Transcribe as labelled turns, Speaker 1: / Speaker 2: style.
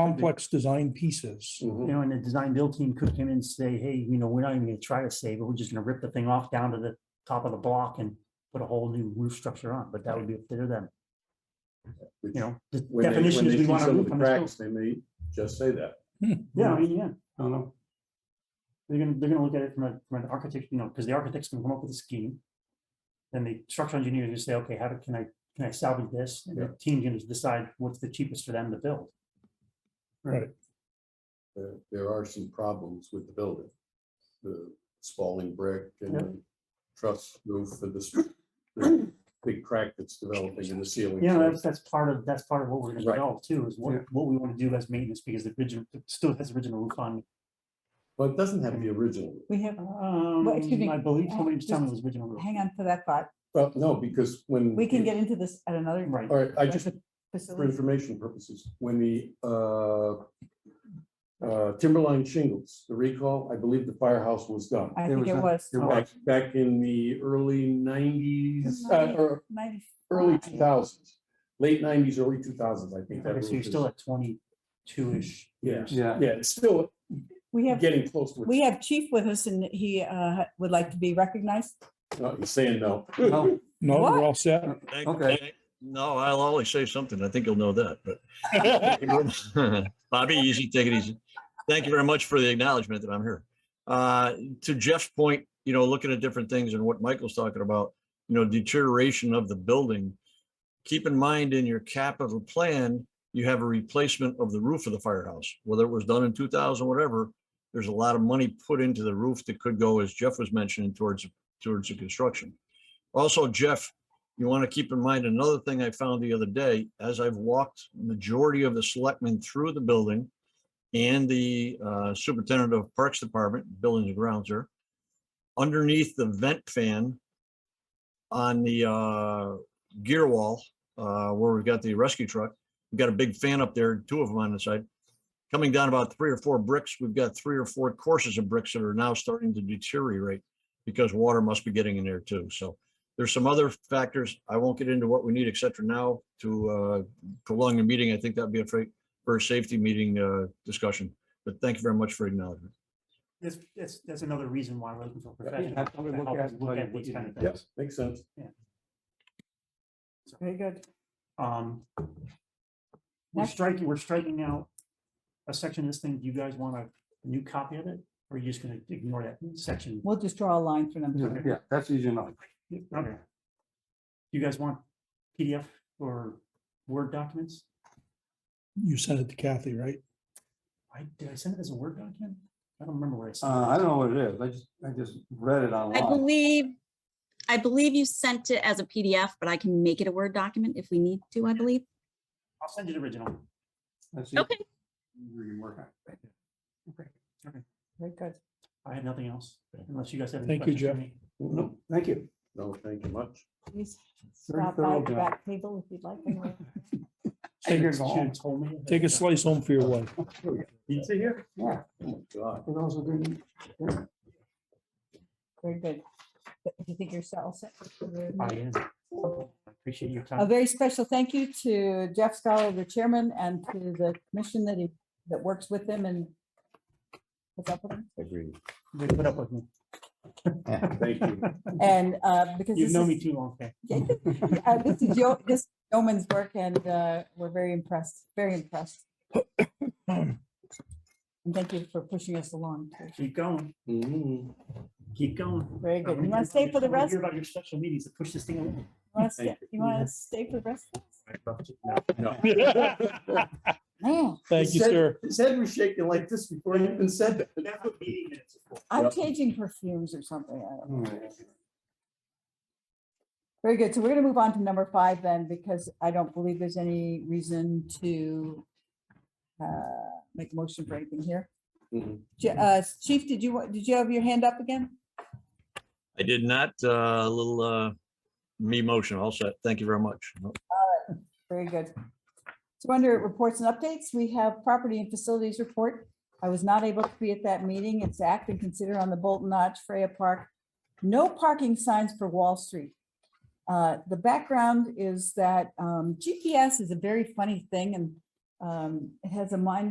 Speaker 1: complex design pieces.
Speaker 2: Mhm.
Speaker 3: you know, and the design build team could come in and say, hey, you know, we're not even gonna try to save it, we're just gonna rip the thing off down to the top of the block and put a whole new roof structure on, but that would be up to them,
Speaker 2: Which-
Speaker 3: you know, the
Speaker 2: when they- when
Speaker 3: definition
Speaker 2: they
Speaker 3: is we
Speaker 2: see
Speaker 3: want a
Speaker 2: some of
Speaker 3: roof
Speaker 2: the
Speaker 3: on the
Speaker 2: Cracks, they may just say that.
Speaker 3: Yeah, I mean, yeah,
Speaker 2: I don't know.
Speaker 3: they're gonna, they're gonna look at it from a, from an architect, you know, because the architect's gonna come up with a scheme. Then the structural engineer is gonna say, okay, how do- can I, can I salvage this? And the team's gonna decide what's the cheapest for them to build.
Speaker 2: There, there are some problems with the building. The spalling brick and
Speaker 3: Yeah.
Speaker 2: the truss roof for this, the big crack that's developing in the ceiling.
Speaker 3: Yeah,
Speaker 2: So
Speaker 3: that's, that's part of, that's part of what we're gonna
Speaker 2: Right.
Speaker 3: develop too, is
Speaker 2: Yeah.
Speaker 3: what, what we wanna do as maintenance, because the original, it still has original roof on.
Speaker 2: But it doesn't have the original.
Speaker 4: We have,
Speaker 3: Um,
Speaker 4: excuse me,
Speaker 3: I believe
Speaker 4: uh,
Speaker 3: somebody was telling me it
Speaker 4: just
Speaker 3: was original roof.
Speaker 4: hang on to that thought.
Speaker 2: Well, no, because when.
Speaker 4: We can
Speaker 2: the-
Speaker 4: get into this at another.
Speaker 3: Right.
Speaker 2: All right, I just, for
Speaker 4: Facility.
Speaker 2: information purposes, when the uh, uh, Timberline shingles, the recall, I believe the firehouse was done.
Speaker 4: I
Speaker 5: There
Speaker 4: think
Speaker 5: was
Speaker 4: it
Speaker 5: a-
Speaker 4: was.
Speaker 5: there
Speaker 4: uh,
Speaker 2: Back, back in the early nineties, uh,
Speaker 4: Ninety-
Speaker 2: or
Speaker 4: ninety-
Speaker 2: early
Speaker 4: Five.
Speaker 2: two thousands, late nineties, early two thousands, I think. that
Speaker 3: Okay, so you're
Speaker 2: roof
Speaker 3: still
Speaker 2: is-
Speaker 3: at twenty-two-ish.
Speaker 2: Yeah,
Speaker 5: Yeah.
Speaker 2: yeah, it's still
Speaker 4: We have,
Speaker 2: getting close to
Speaker 4: we
Speaker 2: it.
Speaker 4: have chief with us and he uh, would like to be recognized.
Speaker 2: No, He's saying no.
Speaker 5: No,
Speaker 1: No, we're
Speaker 4: What?
Speaker 1: all set.
Speaker 6: Thank-
Speaker 5: Okay.
Speaker 6: thank- No, I'll always say something. I think you'll know that, but. Bobby, easy, take it easy. Thank you very much for the acknowledgement that I'm here. Uh, to Jeff's point, you know, looking at different things and what Michael's talking about, you know, deterioration of the building. Keep in mind in your capital plan, you have a replacement of the roof of the firehouse, whether it was done in two thousand, whatever. There's a lot of money put into the roof that could go, as Jeff was mentioning, towards, towards the construction. Also, Jeff, you want to keep in mind another thing I found the other day, as I've walked majority of the selectmen through the building and the uh, superintendent of Parks Department, Buildings and Grounds here, underneath the vent fan on the uh, gear wall, uh, where we've got the rescue truck, we've got a big fan up there, two of them on the side. Coming down about three or four bricks, we've got three or four courses of bricks that are now starting to deteriorate because water must be getting in there too. So there's some other factors. I won't get into what we need, et cetera, now to uh, prolong the meeting. I think that'd be a fir- first safety meeting uh, discussion. But thank you very much for acknowledgement.
Speaker 3: That's, that's, that's another reason why we're looking for
Speaker 5: yeah,
Speaker 3: professionals
Speaker 5: have
Speaker 3: to
Speaker 5: somebody look
Speaker 3: help us
Speaker 5: at it,
Speaker 3: look
Speaker 5: tell you
Speaker 3: at
Speaker 5: what
Speaker 3: these
Speaker 5: you
Speaker 3: kind
Speaker 5: need.
Speaker 3: of things.
Speaker 2: Yes, makes sense.
Speaker 4: Very good.
Speaker 3: Um. We're
Speaker 4: Next.
Speaker 3: striking, we're striking out a section of this thing. Do you guys want a new copy of it? Or are you just gonna ignore that section?
Speaker 4: We'll just draw a line for
Speaker 5: yeah,
Speaker 4: them.
Speaker 5: yeah, that's easy enough.
Speaker 3: Okay. You guys want PDF or Word documents?
Speaker 1: You sent it to Kathy, right?
Speaker 3: I, did I send it as a Word document? I don't remember where I sent
Speaker 5: Uh, I don't know what it is. I just, I just read it
Speaker 7: I
Speaker 5: online.
Speaker 7: believe, I believe you sent it as a PDF, but I can make it a Word document if we need to, I believe.
Speaker 3: it. I'll send you the original.
Speaker 5: That's
Speaker 7: Okay.
Speaker 5: easy. You can work on it.
Speaker 4: Very good.
Speaker 3: I had nothing else, unless you guys have. any
Speaker 1: Thank you,
Speaker 3: questions for
Speaker 1: Jeff.
Speaker 3: me.
Speaker 5: No, thank you.
Speaker 2: No, thank you much.
Speaker 4: Please
Speaker 5: Very
Speaker 4: stop by
Speaker 5: thorough
Speaker 4: the
Speaker 5: job.
Speaker 4: back table if you'd like. and
Speaker 1: Take
Speaker 3: Should've-
Speaker 1: it home.
Speaker 3: should've told me.
Speaker 1: Take a slice home for your wife.
Speaker 2: Pizza here?
Speaker 5: Yeah,
Speaker 2: Oh, God.
Speaker 5: for those who didn't.
Speaker 4: we'll- Very good. Do you think you're all set?
Speaker 3: I am. I Appreciate your
Speaker 4: A
Speaker 3: time.
Speaker 4: very special thank you to Jeff Scholar, the chairman, and to the commission that he, that works with him and puts up with him.
Speaker 3: They put up with me.
Speaker 2: Thank you.
Speaker 4: and uh, because
Speaker 3: You've
Speaker 4: this
Speaker 3: known me
Speaker 4: is,
Speaker 3: too long, Fran.
Speaker 4: uh, this is Joe, this is yeoman's work and uh, we're very impressed, very impressed. And thank you for pushing us along. too.
Speaker 3: Keep going,
Speaker 2: Mhm.
Speaker 3: keep going.
Speaker 4: Very good. You
Speaker 3: I wanna
Speaker 4: want to stay
Speaker 3: hear-
Speaker 4: for
Speaker 3: I
Speaker 4: the
Speaker 3: wanna
Speaker 4: rest?
Speaker 3: Hear about your special meetings to push this thing along.
Speaker 4: You want to,
Speaker 2: Thank
Speaker 4: you want to stay for the rest? of this?
Speaker 2: No.
Speaker 4: Man,
Speaker 1: Thank
Speaker 2: His
Speaker 1: you,
Speaker 2: head-
Speaker 1: sir.
Speaker 2: His head was shaking like this before he even said that.
Speaker 3: That's what meeting minutes are for.
Speaker 4: I'm
Speaker 2: Yep.
Speaker 4: changing perfumes or something. I don't know.
Speaker 5: All right.
Speaker 2: Mm-hmm.
Speaker 4: Very good. So we're going to move on to number five then, because I don't believe there's any reason to uh, make a motion for anything here.
Speaker 2: Mhm.
Speaker 4: Je- uh, Chief, did you, wa- did you have your hand up again?
Speaker 6: I did not, uh, a little uh, me motion. All set. Thank you very much.
Speaker 4: Very good. So under reports and updates, we have property and facilities report. I was not able to be at that meeting. It's act and consider on the Bolton Notch Freya Park. No parking signs for Wall Street. Uh, The background is that um, GPS is a very funny thing and Um, It has a mind